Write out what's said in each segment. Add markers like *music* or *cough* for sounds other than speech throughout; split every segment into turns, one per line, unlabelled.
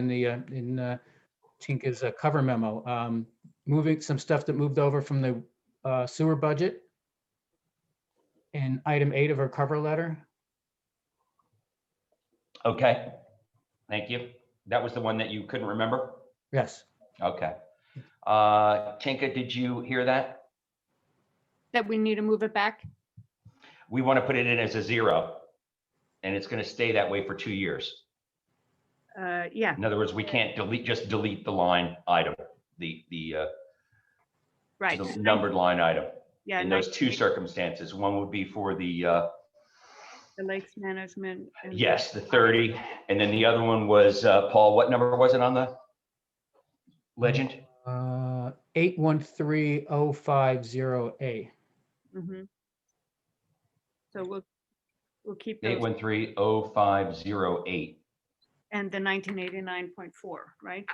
in the, uh, in uh, Tinka's uh, cover memo. Um, Moving, some stuff that moved over from the uh, sewer budget in item eight of her cover letter.
Okay, thank you. That was the one that you couldn't remember?
Yes,
Okay. Uh Tinka, did you hear that?
that we need to move it back?
We want to put it in as a zero. And it's going to stay that way for two years.
Uh, yeah,
In other words, we can't delete, just delete the line item, the, the uh,
right.
the numbered line item.
Yeah,
In
like
those two circumstances, one would be for the, uh,
the lakes management. and-
yes, the 30. And then the other one was, uh, Paul, what number was it on the legend?
Uh, 813050A.
Mhm. So we'll, we'll keep those
8130508.
and the nineteen eighty-nine point four, right?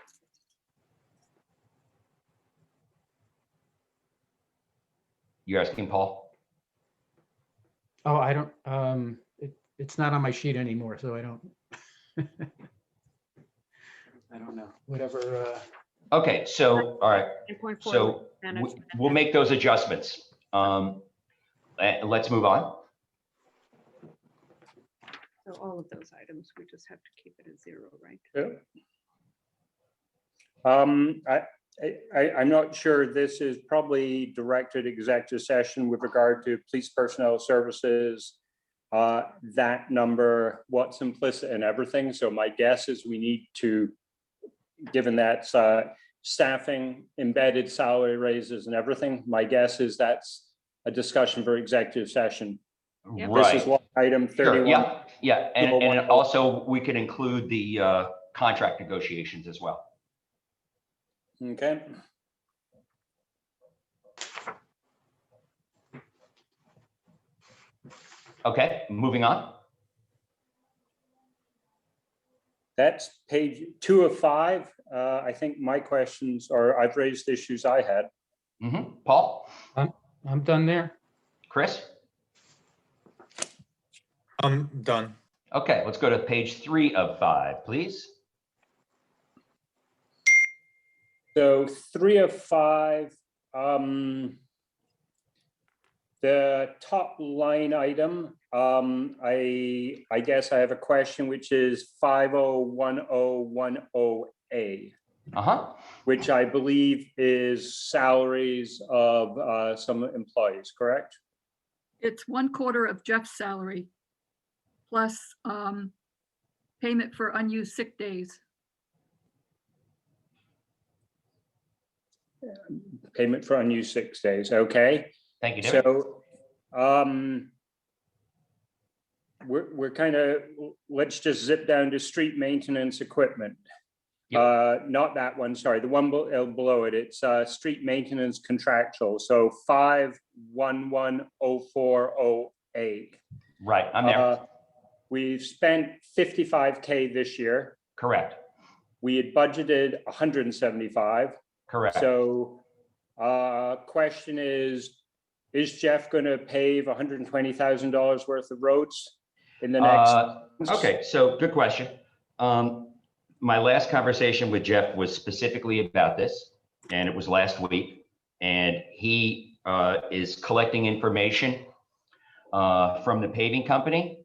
You're asking Paul?
Oh, I don't, um, it, it's not on my sheet anymore, so I don't. *laughs* I don't know, whatever, uh,
Okay, so, all right,
9.4
so w-
management.
we'll make those adjustments. Um, eh, Let's move on.
So all of those items, we just have to keep it at zero, right?
Um, I, I- I, I'm not sure. This is probably directed executive session with regard to police personnel services. Uh, that number, what's implicit in everything. So my guess is we need to, given that's, uh, staffing, embedded salary raises and everything, my guess is that's a discussion for executive session.
Yep.
Right.
This is what item
Sure,
thirty-one.
Yeah, yeah, and, and
31.
also we can include the uh, contract negotiations as well.
Okay,
Okay, moving on.
that's page two of five. Uh, I think my questions are, I've raised issues I had.
Mhm. Paul,
I'm done there.
Chris?
I'm done.
Okay, let's go to page three of five, please.
So three of five, um, the top line item, um, I, I guess I have a question, which is five oh one oh one oh A,
Uh-huh,
which I believe is salaries of, uh, some employees, correct?
It's one quarter of Jeff's salary plus um, payment for unused sick days.
Payment for unused six days, okay?
thank you, David.
So, um, we're, we're kind of, let's just zip down to street maintenance equipment.
Yep.
Uh, not that one, sorry, the one be- uh, below it, it's, uh, street maintenance contractual, so five, one, one, oh, four, oh, eight.
Right, I'm there,
Uh, We've spent fifty-five K this year,
correct,
we had budgeted hundred and seventy-five.
correct.
So, uh, question is, is Jeff gonna pave hundred and twenty thousand dollars worth of roads in the next?
Uh, Okay, so good question. Um, my last conversation with Jeff was specifically about this, and it was last week. And he, uh, is collecting information, uh, from the paving company.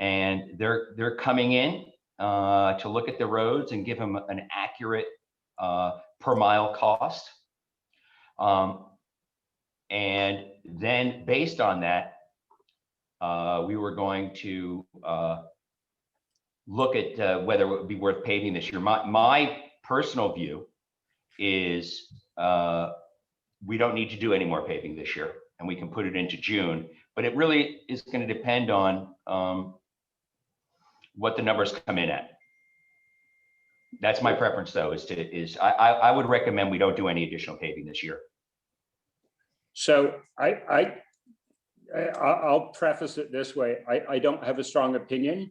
And they're, they're coming in, uh, to look at the roads and give him an accurate, uh, per mile cost. Um, and then based on that, uh, we were going to, uh, look at uh, whether it would be worth paving this year. My, my personal view is uh, we don't need to do any more paving this year and we can put it into June. But it really is going to depend on um, what the numbers come in at. That's my preference though, is to, is I, I, I would recommend we don't do any additional paving this year.
So I, I, I, I'll preface it this way, I, I don't have a strong opinion.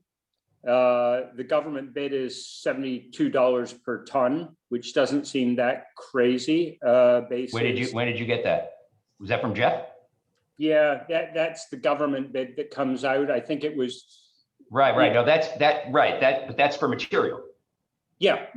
Uh, the government bid is seventy-two dollars per ton, which doesn't seem that crazy, uh, basis.
Where did you, when did you get that? Was that from Jeff?
Yeah, that, that's the government bid that comes out, I think it was,
Right, right. No, that's, that, right, that, but that's for material.
yeah,